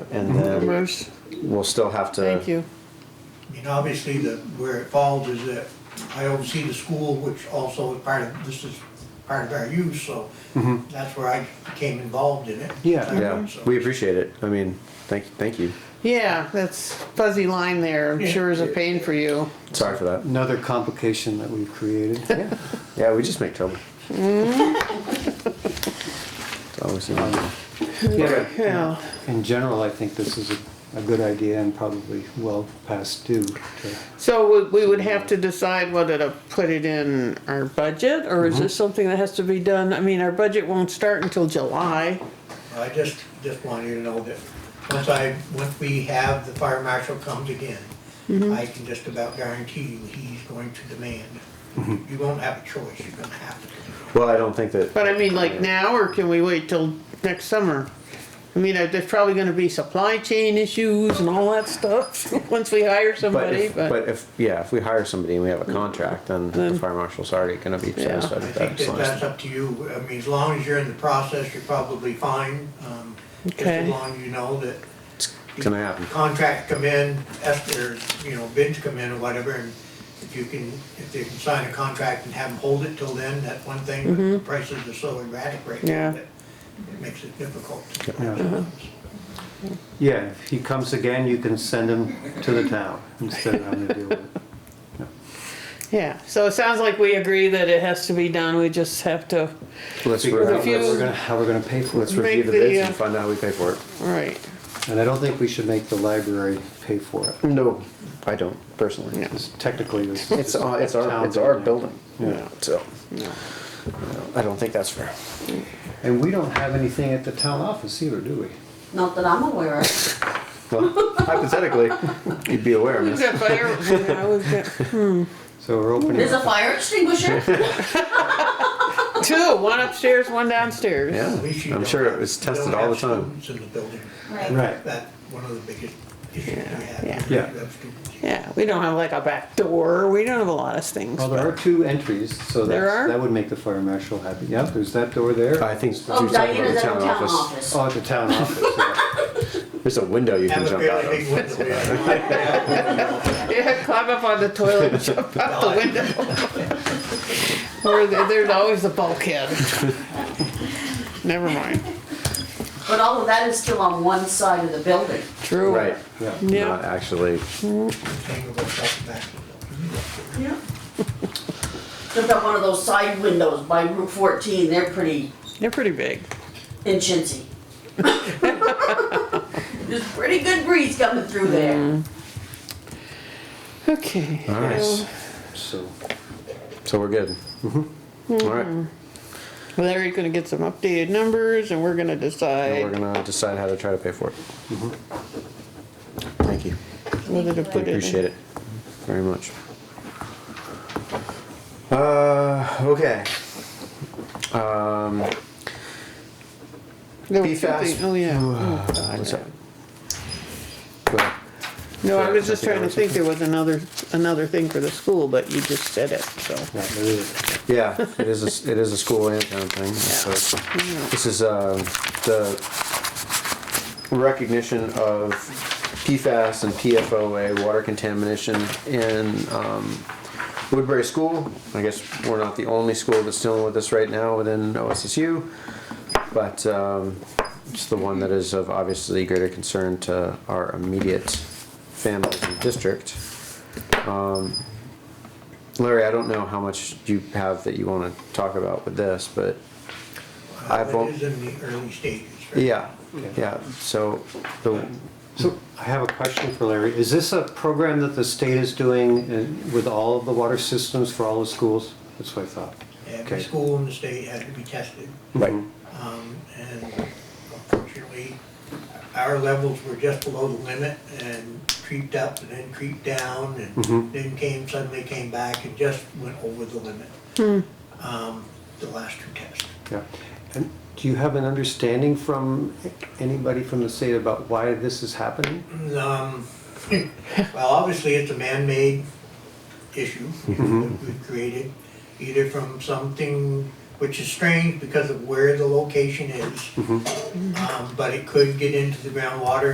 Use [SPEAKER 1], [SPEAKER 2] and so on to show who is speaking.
[SPEAKER 1] and then
[SPEAKER 2] Numbers.
[SPEAKER 1] we'll still have to.
[SPEAKER 2] Thank you.
[SPEAKER 3] I mean, obviously, the, where it falls is that I oversee the school, which also is part of, this is part of our use, so that's where I became involved in it.
[SPEAKER 2] Yeah.
[SPEAKER 1] Yeah,
[SPEAKER 3] So-
[SPEAKER 1] we appreciate it. I mean, thank, thank you.
[SPEAKER 2] Yeah, that's fuzzy line there. I'm
[SPEAKER 3] Yeah.
[SPEAKER 2] sure is a pain for you.
[SPEAKER 1] Sorry for that.
[SPEAKER 4] Another complication that we've created.
[SPEAKER 1] Yeah, we just make trouble.
[SPEAKER 2] Mm.
[SPEAKER 1] It's always the one.
[SPEAKER 4] Yeah,
[SPEAKER 2] Yeah.
[SPEAKER 4] In general, I think this is a, a good idea and probably well past due. to-
[SPEAKER 2] So we, we would have to decide whether to put it in our budget, or is this something that has to be done? I mean, our budget won't start until July.
[SPEAKER 3] I just, just wanted you to know that once I, once we have, the fire marshal comes again, I can just about guarantee you he's going to demand. You won't have a choice, you're gonna have to.
[SPEAKER 1] Well, I don't think that.
[SPEAKER 2] But I mean, like now, or can we wait till next summer? I mean, uh, there's probably gonna be supply chain issues and all that stuff, once we hire
[SPEAKER 1] But
[SPEAKER 2] somebody,
[SPEAKER 1] if,
[SPEAKER 2] but,
[SPEAKER 1] but if, yeah, if we hire somebody and we have a contract, then the
[SPEAKER 2] Then-
[SPEAKER 1] fire marshal's already gonna be
[SPEAKER 2] Yeah.
[SPEAKER 1] satisfied
[SPEAKER 3] I
[SPEAKER 1] with that.
[SPEAKER 3] think
[SPEAKER 1] as
[SPEAKER 3] that
[SPEAKER 1] long as-
[SPEAKER 3] that's up to you, I mean, as long as you're in the process, you're probably fine, um, just as
[SPEAKER 2] Okay.
[SPEAKER 3] long as you know that.
[SPEAKER 1] It's gonna happen.
[SPEAKER 3] Contracts come in, after, you know, bids come in or whatever, and if you can, if they can sign a contract and have them hold it till then, that's one thing, but prices are so erratic right now
[SPEAKER 2] Mm-hmm. Yeah.
[SPEAKER 3] that it makes it difficult.
[SPEAKER 4] Yeah. Yeah, if he comes again, you can send him to the town instead of having to deal with it.
[SPEAKER 2] yeah. So it sounds like we agree that it has to be done, we just have to,
[SPEAKER 1] Let's,
[SPEAKER 4] Figure
[SPEAKER 1] re-
[SPEAKER 4] out what
[SPEAKER 2] few-
[SPEAKER 4] we're gonna, how we're gonna pay for
[SPEAKER 1] let's
[SPEAKER 4] it.
[SPEAKER 1] review
[SPEAKER 2] Make
[SPEAKER 1] the
[SPEAKER 2] the,
[SPEAKER 1] bids
[SPEAKER 2] uh,
[SPEAKER 1] and find out how we pay for it.
[SPEAKER 2] all right,
[SPEAKER 4] And I don't think we should make the library pay for it.
[SPEAKER 1] No, I don't personally.
[SPEAKER 2] Yeah.
[SPEAKER 4] Because technically, this is.
[SPEAKER 1] It's,
[SPEAKER 4] just
[SPEAKER 1] our- it's our,
[SPEAKER 4] town
[SPEAKER 1] it's our building,
[SPEAKER 4] Yeah.
[SPEAKER 1] so,
[SPEAKER 2] no.
[SPEAKER 1] I don't think that's fair.
[SPEAKER 4] And we don't have anything at the town office either, do we?
[SPEAKER 5] Not that I'm aware of.
[SPEAKER 1] Well, hypothetically, you'd be aware,
[SPEAKER 2] We've
[SPEAKER 1] miss.
[SPEAKER 2] got fire, yeah, we've got
[SPEAKER 4] So we're opening.
[SPEAKER 5] There's a fire extinguisher.
[SPEAKER 2] two, one upstairs, one downstairs.
[SPEAKER 1] Yeah,
[SPEAKER 3] At least you
[SPEAKER 1] I'm
[SPEAKER 3] don't
[SPEAKER 1] sure it
[SPEAKER 3] have-
[SPEAKER 1] was
[SPEAKER 3] you don't
[SPEAKER 1] tested all the
[SPEAKER 3] have
[SPEAKER 1] time.
[SPEAKER 3] students in the building.
[SPEAKER 5] Right.
[SPEAKER 4] Right.
[SPEAKER 3] That's one of the biggest issues we have.
[SPEAKER 2] yeah.
[SPEAKER 3] is
[SPEAKER 4] Yeah.
[SPEAKER 3] you have students.
[SPEAKER 2] Yeah, we don't have like a back door, we don't have a lot of things.
[SPEAKER 4] Well, there are two entries, so
[SPEAKER 2] There
[SPEAKER 4] that's,
[SPEAKER 2] are?
[SPEAKER 4] that would make the fire marshal happy. Yeah, there's that door there.
[SPEAKER 1] I think she was
[SPEAKER 5] Oh,
[SPEAKER 1] talking about the
[SPEAKER 5] Diana's at
[SPEAKER 1] town office.
[SPEAKER 5] office.
[SPEAKER 4] Oh, at the town office, yeah.
[SPEAKER 1] There's a window you can
[SPEAKER 3] Have a
[SPEAKER 1] jump out
[SPEAKER 3] fairly big
[SPEAKER 1] of.
[SPEAKER 3] window. yeah.
[SPEAKER 2] Yeah, climb up on the toilet and jump out the window. Or there- there's always the bulkhead. Never mind.
[SPEAKER 5] But all of that is still on one side of the building.
[SPEAKER 2] True.
[SPEAKER 1] Right,
[SPEAKER 4] yeah.
[SPEAKER 2] Yeah.
[SPEAKER 1] not actually,
[SPEAKER 3] Tangled up at the back of the building.
[SPEAKER 5] Yeah. They've got one of those side windows by Route 14. They're pretty
[SPEAKER 2] They're pretty big.
[SPEAKER 5] inchincy. There's pretty good breeze coming through there.
[SPEAKER 2] Okay.
[SPEAKER 1] all right,
[SPEAKER 4] So,
[SPEAKER 1] so we're good. Mm-hmm. All right,
[SPEAKER 3] Hmm.
[SPEAKER 1] now
[SPEAKER 2] Larry's gonna get some updated numbers and we're gonna
[SPEAKER 1] we're
[SPEAKER 2] decide
[SPEAKER 1] gonna decide how to try to pay for it. Mm-hmm. Thank you,
[SPEAKER 2] whether to put it in.
[SPEAKER 1] appreciate it very much. Uh, okay. Um,
[SPEAKER 2] There
[SPEAKER 1] Be
[SPEAKER 2] was something-
[SPEAKER 1] fast.
[SPEAKER 2] Oh, yeah.
[SPEAKER 3] Hmm.
[SPEAKER 2] Oh, God,
[SPEAKER 1] Uh, what's
[SPEAKER 2] yeah.
[SPEAKER 1] up? Go ahead.
[SPEAKER 2] No, I was just trying to think there was another, another thing for the school, but you just said it, so.
[SPEAKER 4] yeah, there is.
[SPEAKER 1] Yeah, it is, a- it is a school and town thing. so it's- This is, uh, the recognition of PFAS and PFOA, water contamination in, um, Woodbury School. I guess we're not the only school that's dealing with this right now within OSSU, but, um, it's the one that is of obviously greater concern to our immediate families and district. Larry, I don't know how much you have that you wanna talk about with this, but I
[SPEAKER 3] It
[SPEAKER 1] vote-
[SPEAKER 3] is in the early stages. right?
[SPEAKER 1] yeah, yeah, so the,
[SPEAKER 4] So I have a question for Larry. Is this a program that the state is doing in- with all of the water systems for all the schools? That's what I thought.
[SPEAKER 3] Every
[SPEAKER 4] Okay.
[SPEAKER 3] school in the state has to be tested.
[SPEAKER 1] right,
[SPEAKER 3] Um, and unfortunately, our levels were just below the limit and creeped up and then creeped down
[SPEAKER 1] Mm-hmm.
[SPEAKER 3] and then came, suddenly came back and just went over the limit. Um, the last two tests.
[SPEAKER 4] Yeah. And do you have an understanding from anybody from the state about why this is happening?
[SPEAKER 3] Um, well, obviously, it's a man-made issue that we've created, either from something which is strange because of where the location is. Um, but it could get into the groundwater